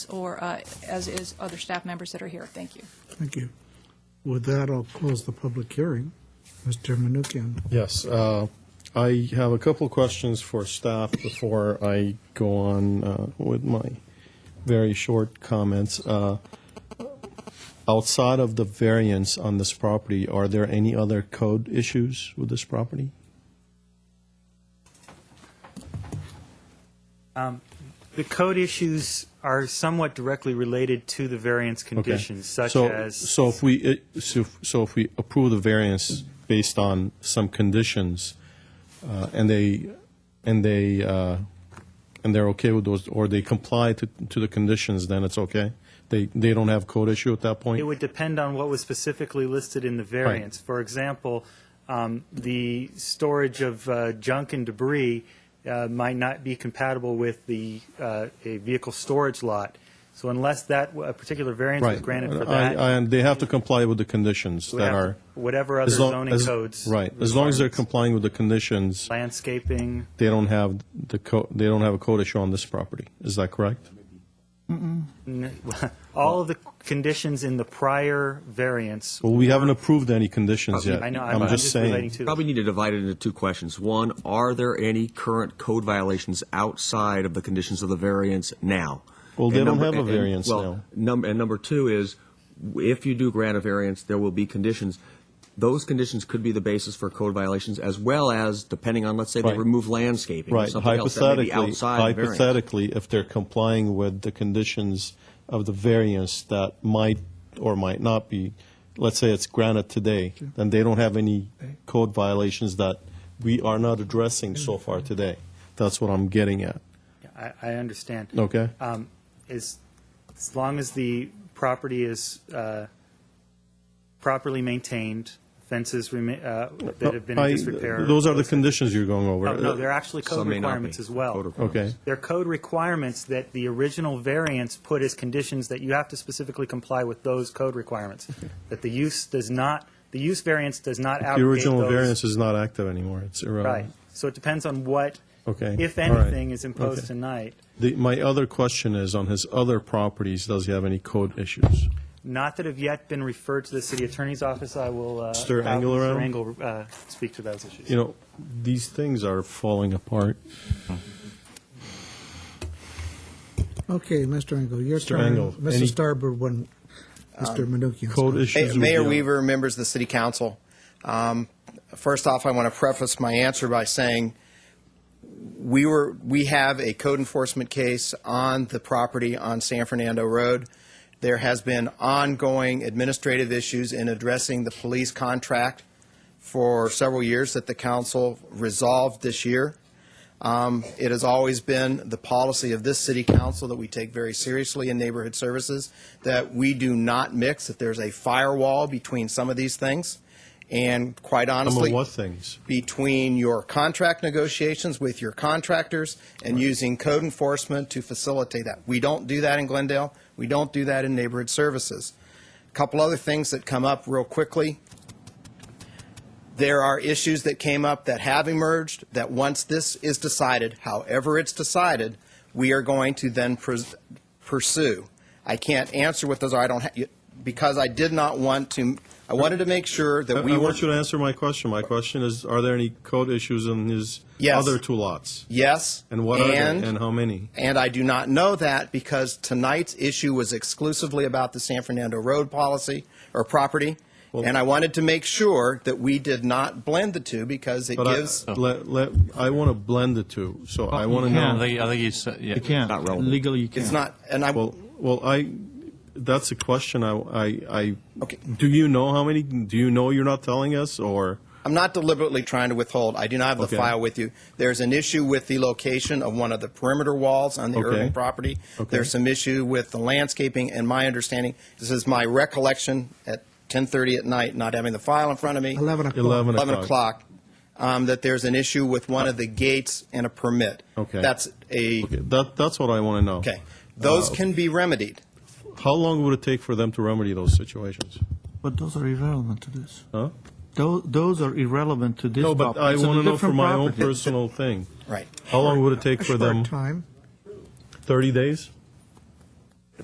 or uh, as is other staff members that are here. Thank you. Thank you. With that, I'll close the public hearing. Mr. Menuchyan. Yes, uh, I have a couple of questions for staff before I go on uh, with my very short comments. Uh, Outside of the variance on this property, are there any other code issues with this property? The code issues are somewhat directly related to the variance Okay. conditions, such So- as. So if we, uh, so if- so if we approve the variance based on some conditions, uh, and they, and they, uh, and they're okay with those, or they comply to, to the conditions, then it's okay? They, they don't have code issue at that point? It would depend on what was specifically listed in the variance. For example, um, the storage of uh, junk and debris uh, might not be compatible with the, uh, a vehicle storage lot. So unless that, a particular variance was Right. granted for I- I- that, And they have to comply with the conditions would that have- are. whatever other as long- zoning as- codes. Right, as long as they're requirements. complying with the conditions, Landscaping, they don't have the code, they don't have a code issue on this property. Is that correct? n- all of the conditions in the prior variance. Well, we haven't approved any conditions yet. I know, I'm I'm just saying. relating to. Probably need to divide it into two questions. One, are there any current code violations outside of the conditions of the variance now? Well, they And don't number- have a and- and- variance now. well, num- and number two is, w- if you do grant a variance, there will be conditions. Those conditions could be the basis for code violations, as well as, depending on, let's say, they Right. remove landscaping or Right, something else that may hypothetically, be outside the variance. hypothetically, if they're complying with the conditions of the variance that might or might not be, let's say it's granted today, then they don't have any code violations that we are not addressing so far today. That's what I'm getting at, I, I understand. okay? um, is, as long as the property is uh, properly maintained, fences remain, uh, that have been I- in disrepair. Those are the conditions you're going No, over. no, they're actually uh, Some code may not requirements be. as well. Code requirements. Okay, They're code requirements that the original variance put as conditions that you have to specifically comply with those code requirements. That the use does not, the use variance does not the abrogate those. original variance is not active anymore, it's Right. irrelevant. So it depends on what, Okay. if All right. anything, is imposed Okay. tonight. The, my other question is, on his other properties, does he have any code issues? Not that have yet been referred to the city attorney's office. I will. uh, Mr. have Engel around? Mr. Engel uh, speak to those issues. you know, these things are falling apart. Okay, Mr. Engel, your Mr. turn. Engel, any- um, Mr. Starboard, one. Mr. Menuchyan. Code sorry. issues. Ma- would Mayor be- Weaver, members of the city council. Um, First off, I want to preface my answer by saying we were, we have a code enforcement case on the property on San Fernando Road. There has been ongoing administrative issues in addressing the police contract for several years that the council resolved this year. Um, It has always been the policy of this city council that we take very seriously in neighborhood services, that we do not mix, that there's a firewall between some of these things. And quite Some honestly of what things? between your contract negotiations with your contractors and using code enforcement to facilitate that. We don't do that in Glendale. We don't do that in neighborhood services. A Couple other things that come up real quickly. There are issues that came up that have emerged, that once this is decided, however it's decided, we are going to then pres- pursue. I can't answer what those are, I don't, ha- you- because I did not want to, I wanted to make sure I, that we I were. want you to answer my question. My question is, are there any code issues in his Yes. other two lots? Yes. And what are and- they, and how many? And I do not know that because tonight's issue was exclusively about the San Fernando Road policy or property. And I wanted to make sure that we did not blend the two because it But I, gives, let, let, I want to blend the two, so I want to You can't. know. I think, I think you said, yeah. You can't. Not relevant. Legally, you can't. it's not, and I, Well, well, I, that's a question I, I, I. Okay. Do you know how many, do you know you're not telling us, or? I'm not deliberately trying to withhold. I do not have the Okay. file with you. There's an issue with the location of one of the perimeter walls on the Okay. urban property. Okay. There's some issue with the landscaping, and my understanding, this is my recollection at 10:30 at night, not having the file in front of me. 11 o'clock. 11 11 o'clock, um, that there's an issue with one of the gates and a permit. Okay. That's a, Okay, Uh, That, that's what I want to know. okay. Those can be remedied. How long would it take for them to remedy those situations? But those are irrelevant to this. Huh? Those, those are irrelevant to this. No, but property. I It's a want to know different for my own property. personal thing. Right. How long would it take for Short them? time. 30 days?